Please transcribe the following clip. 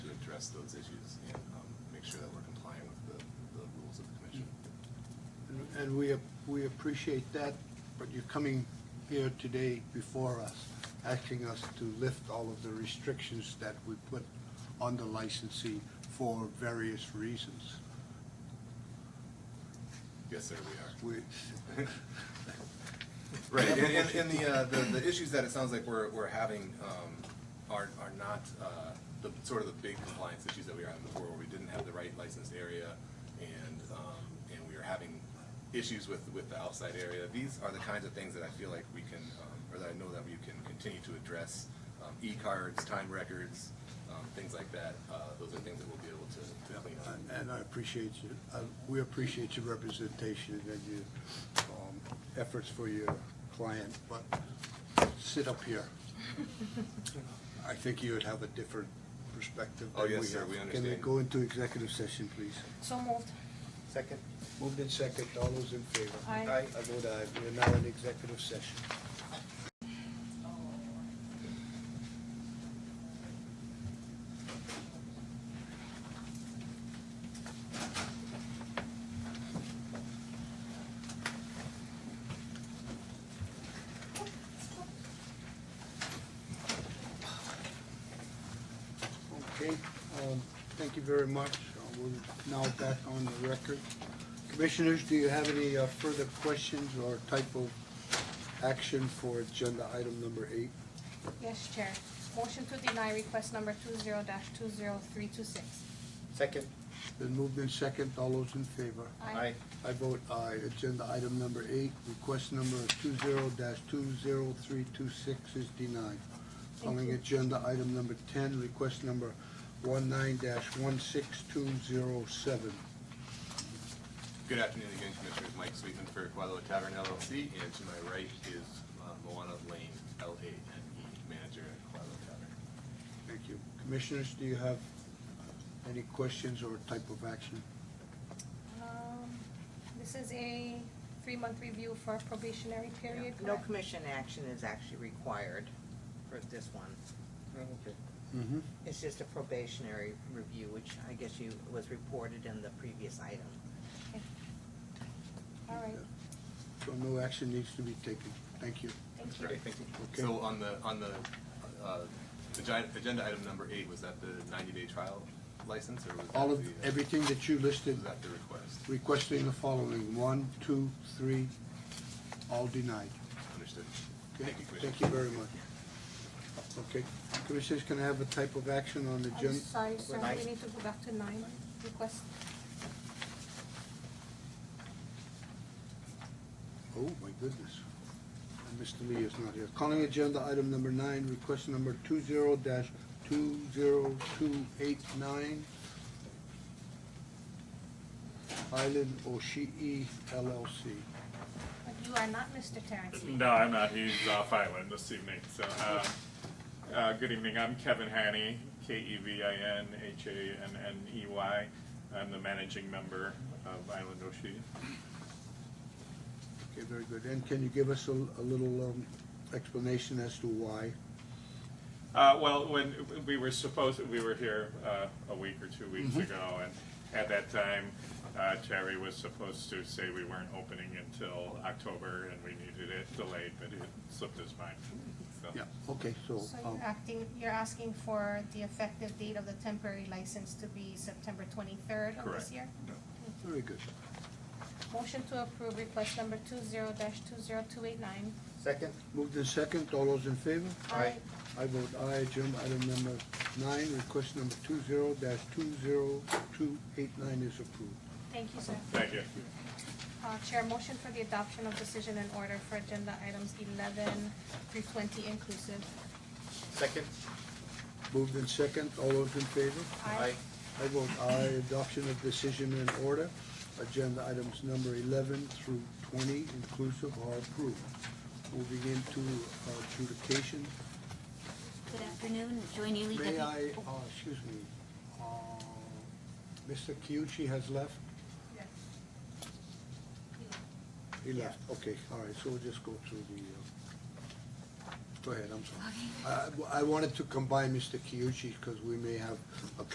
address those issues and um, make sure that we're complying with the, the rules of the commission. And- And we, ap- we appreciate that, but you're coming here today before us, asking us to lift all of the restrictions that we put on the licensee for various reasons. Yes, sir, we are. We, Right, and, and, and the, uh, the, the issues that it sounds like we're, we're having, um, are, are not, uh, the, sort of the big compliance issues that we were having before, where we didn't have the right licensed area, and, um, and we were having issues with, with the outside area. These are the kinds of things that I feel like we can, um, or that I know that we can continue to address, um, e-cards, time records, um, things like that, uh, those are things that we'll be able to, to clean up. and I appreciate you, uh, we appreciate your representation and your um, efforts for your client, but sit up here. I think you would have a different perspective Oh, than we have. yes, sir, we Can we understand. go into executive session, please? So moved. Second. Moved in second, all those in favor? Aye. Aye. I vote aye, we are now in executive session. Okay, um, thank you very much. Uh, We're now back on the record. Commissioners, do you have any uh, further questions or type of action for agenda item number eight? Yes, Chair. Motion to deny request number two zero dash two zero three two six. Second. Then moved in second, all those in favor? Aye. I vote aye. Agenda item number eight, request number two zero dash two zero three two six is denied. Calling you. agenda item number ten, request number one nine dash one six two zero seven. Good afternoon again, Commissioners. Mike Sweetman for Quadlo Tavern LLC, and to my right is uh, Moana Lane, L-A-N-E, E, manager at Quadlo Tavern. Thank you. Commissioners, do you have any questions or type of action? Um, This is a three-month review for probationary period, No correct? commission action is actually required for this one. Mm-hmm. It's just a probationary review, which I guess you, was reported in the previous item. Okay. All right, So no action needs to be taken. Thank you. thank you. Right, thank you. Okay. So on the, on the, uh, agi- agenda item number eight, was that the ninety-day trial license, or was that the? All of, uh, everything that you listed, Was that the request? requesting the following, one, two, three, all denied. Understood. Okay? Thank you, Commissioner. Thank you very much. Okay. Commissioners, can I have a type of action on the I'm agenda? sorry, sir, Nine. we need to go back to nine. Request, Oh, my goodness. And Mr. Lee is not here. Calling agenda item number nine, request number two zero dash two zero two eight nine. Island Oshii LLC. but you are not Mr. Terrence Lee. No, I'm not. He's off island this evening. So, uh, uh, good evening. I'm Kevin Haney, K E V I N H A N N E Y. I'm the managing member of Island Oshi. Okay, very good. And can you give us a, a little, um, explanation as to why? Uh, well, when we were supposed, we were here uh, a week or two weeks ago, and at that time, uh, Terry was supposed to say we weren't opening until October, and we needed it delayed, but it slipped his mind. So, Okay, so, So um, you're acting, you're asking for the effective date of the temporary license to be September twenty-third of Correct. this year? very good. Motion to approve request number two zero dash two zero two eight nine. Second. Moved in second, all those in favor? Aye. I vote aye, agenda item number nine, request number two zero dash two zero two eight nine is approved. Thank you, sir. Thank you. Uh, Chair, motion for the adoption of decision and order for agenda items eleven through twenty inclusive. Second. Moved in second, all those in favor? Aye. I vote aye, adoption of decision and order. Agenda items number eleven through twenty inclusive are approved. Moving into adjudication, Good afternoon, Joy Neely. may Deputy- I, Oh, uh, excuse me, uh, Mr. Kiuchi has left? Yes. He left, okay, all right, so we'll just go through the, uh, go ahead, I'm sorry. I- I, I wanted to combine Mr. Kiuchi because we may have a